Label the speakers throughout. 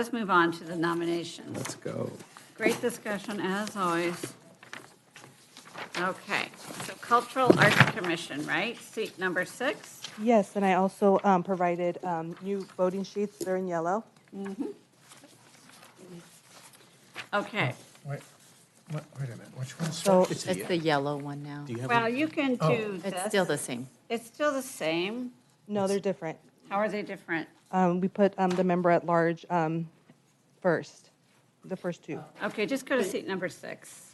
Speaker 1: Let's move on to the nominations.
Speaker 2: Let's go.
Speaker 1: Great discussion, as always. Okay, so Cultural Arts Commission, right? Seat number six.
Speaker 3: Yes, and I also um, provided um, new voting sheets. They're in yellow.
Speaker 1: Okay,
Speaker 4: Wait, wait wait a minute, which one's?
Speaker 3: So
Speaker 5: It's the yellow one now.
Speaker 2: Do you have,
Speaker 1: well,
Speaker 2: a-
Speaker 1: you can
Speaker 4: Oh.
Speaker 1: do this.
Speaker 5: It's still the same.
Speaker 1: It's still the same.
Speaker 3: no, they're different.
Speaker 1: How are they different?
Speaker 3: Um, we put um, the member at large um, first, the first two.
Speaker 1: Okay, just go to seat number six.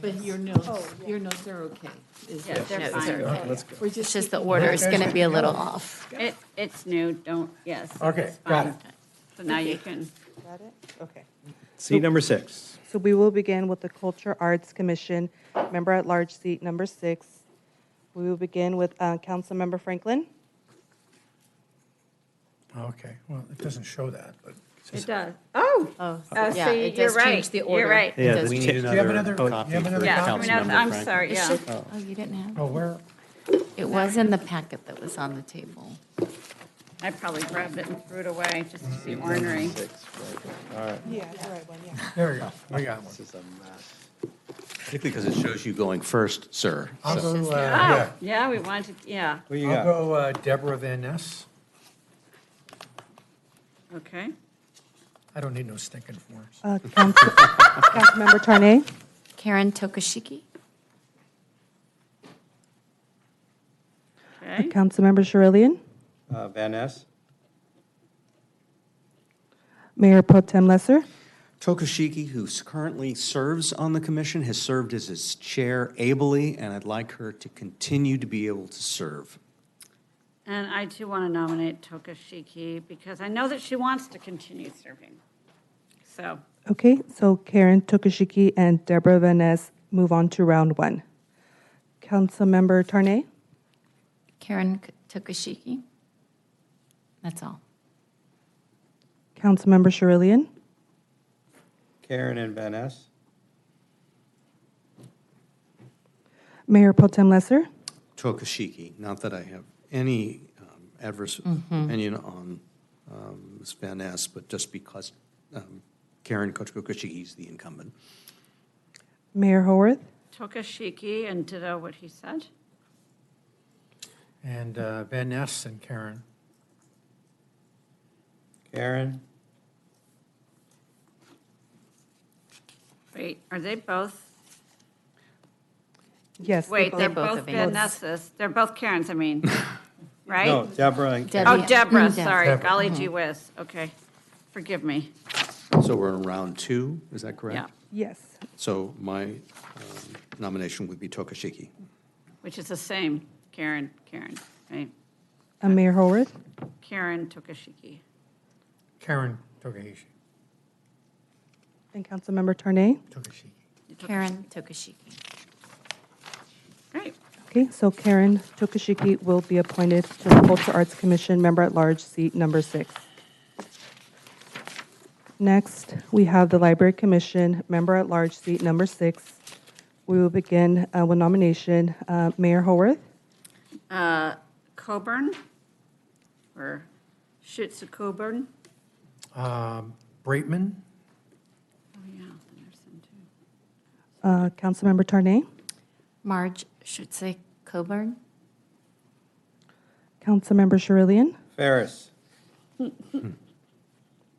Speaker 6: But your notes, your notes are okay. is
Speaker 1: Yeah,
Speaker 6: it?
Speaker 1: they're
Speaker 5: No, it's
Speaker 1: fine.
Speaker 2: all right, let's go.
Speaker 6: We're just.
Speaker 5: It's just the order is going to be a little off.
Speaker 1: It, it's new, don't, yes.
Speaker 4: Okay,
Speaker 1: it's
Speaker 4: got
Speaker 1: fine.
Speaker 4: it.
Speaker 1: So now you can,
Speaker 3: Got it? Okay.
Speaker 2: Seat number six.
Speaker 3: So we will begin with the Culture Arts Commission, member at large seat number six. We will begin with uh, Councilmember Franklin.
Speaker 4: Oh, Okay, well, it doesn't show that, but.
Speaker 1: it does. Oh,
Speaker 5: Oh,
Speaker 1: oh,
Speaker 5: yeah,
Speaker 1: see,
Speaker 5: it
Speaker 1: you're
Speaker 5: does
Speaker 1: right.
Speaker 5: change the
Speaker 1: You're
Speaker 5: order.
Speaker 1: right.
Speaker 5: Yeah,
Speaker 2: We
Speaker 5: does
Speaker 2: need
Speaker 4: Do you have
Speaker 2: another
Speaker 4: another-
Speaker 2: copy
Speaker 4: you have
Speaker 2: for
Speaker 4: another
Speaker 1: Yeah,
Speaker 4: copy?
Speaker 1: no,
Speaker 2: Councilmember
Speaker 1: I'm
Speaker 2: Frank.
Speaker 1: sorry, yeah.
Speaker 5: Oh, you didn't have,
Speaker 4: Oh, where,
Speaker 5: it was in the packet that was on the table.
Speaker 1: I probably grabbed it and threw it away just to be ornery.
Speaker 3: Yeah, the right one, yeah.
Speaker 4: there we go, we got one.
Speaker 7: Particularly because it shows you going first, sir.
Speaker 4: I'll
Speaker 7: So-
Speaker 4: go,
Speaker 1: Oh,
Speaker 4: uh, yeah,
Speaker 1: yeah, we wanted, yeah,
Speaker 2: What you
Speaker 4: I'll
Speaker 2: got?
Speaker 4: go uh, Deborah Van Ness.
Speaker 1: okay.
Speaker 4: I don't need no stinking forms.
Speaker 3: Uh, Council- Councilmember Tarnay.
Speaker 5: Karen Tokushiki?
Speaker 1: Okay,
Speaker 3: Councilmember Sherillian.
Speaker 2: Uh, Van Ness?
Speaker 3: Mayor Pro Tem Lesser.
Speaker 7: Tokushiki, who currently serves on the commission, has served as its chair ably, and I'd like her to continue to be able to serve.
Speaker 1: and I too want to nominate Toka Shiki because I know that she wants to continue serving. So,
Speaker 3: Okay, so Karen Tokushiki and Deborah Van Ness move on to round one. Councilmember Tarnay,
Speaker 5: Karen Tokushiki? That's all.
Speaker 3: Councilmember Sherillian,
Speaker 8: Karen and Van Ness,
Speaker 3: Mayor Potem Lesser,
Speaker 7: Tokushiki, not that I have any um, adverse opinion on um, Ms. Van Ness, but just because um, Karen Tokushiki is the incumbent.
Speaker 3: Mayor Haworth,
Speaker 1: Toka Shiki and ditto what he said.
Speaker 4: And uh, Van Ness and Karen.
Speaker 8: Karen,
Speaker 1: Wait, are they both?
Speaker 3: yes. they're
Speaker 1: Wait,
Speaker 3: both-
Speaker 1: they're
Speaker 5: both
Speaker 1: both
Speaker 5: of Van
Speaker 1: Van Ness's. They're both Karen's, I mean,
Speaker 8: no,
Speaker 1: right?
Speaker 8: Deborah and Karen.
Speaker 1: Oh,
Speaker 5: Debbie-
Speaker 1: Deborah,
Speaker 5: Deb-
Speaker 1: sorry,
Speaker 4: Deborah.
Speaker 1: golly gee whiz, okay. Forgive me,
Speaker 7: So we're in round two, is that correct?
Speaker 1: yeah,
Speaker 3: Yes,
Speaker 7: So my um, nomination would be Tokushiki.
Speaker 1: which is the same, Karen, Karen, right?
Speaker 3: Uh, Mayor Haworth,
Speaker 1: Karen Tokashiki.
Speaker 4: Karen Togashi,
Speaker 3: and Councilmember Tarnay.
Speaker 4: Togashi.
Speaker 5: Karen Tokushiki.
Speaker 1: Great,
Speaker 3: Okay, so Karen Tokushiki will be appointed to the Culture Arts Commission Member at Large, seat number six. Next, we have the Library Commission Member at Large, seat number six. We will begin uh, with nomination, uh, Mayor Haworth,
Speaker 1: Coburn, or Schutz Coburn,
Speaker 4: Um, Braitman,
Speaker 1: oh, yeah, then there's some too.
Speaker 3: uh, Councilmember Tarnay,
Speaker 5: Marge Schutze Coburn?
Speaker 3: Councilmember Sherillian,
Speaker 8: Ferris,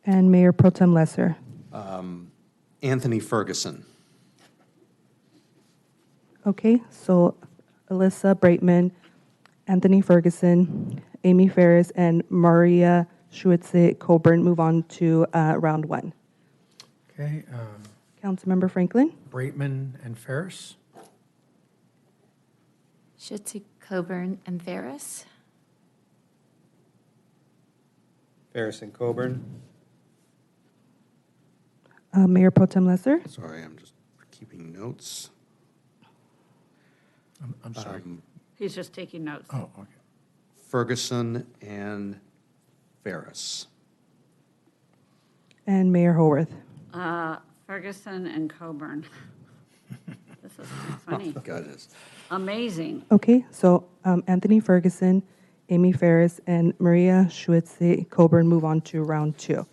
Speaker 3: and Mayor Pro Tem Lesser.
Speaker 7: Anthony Ferguson.
Speaker 3: Okay, so Alyssa Brightman, Anthony Ferguson, Amy Ferris, and Maria Schuetze Coburn move on to uh, round one.
Speaker 4: okay, uh,
Speaker 3: Councilmember Franklin,
Speaker 4: Braitman and Ferris,
Speaker 5: Schutze Coburn and Ferris?
Speaker 8: Ferris and Coburn,
Speaker 3: uh, Mayor Pro Tem Lesser,
Speaker 7: Sorry, I'm just keeping notes.
Speaker 4: I'm- I'm sorry.
Speaker 1: He's just taking notes.
Speaker 2: Uh,
Speaker 4: Oh, okay.
Speaker 7: Ferguson and Ferris.
Speaker 3: and Mayor Haworth.
Speaker 1: Uh, Ferguson and Coburn. This is funny,
Speaker 7: Got it.
Speaker 1: amazing.
Speaker 3: Okay, so um, Anthony Ferguson, Amy Ferris, and Maria Schuetze Coburn move on to round two.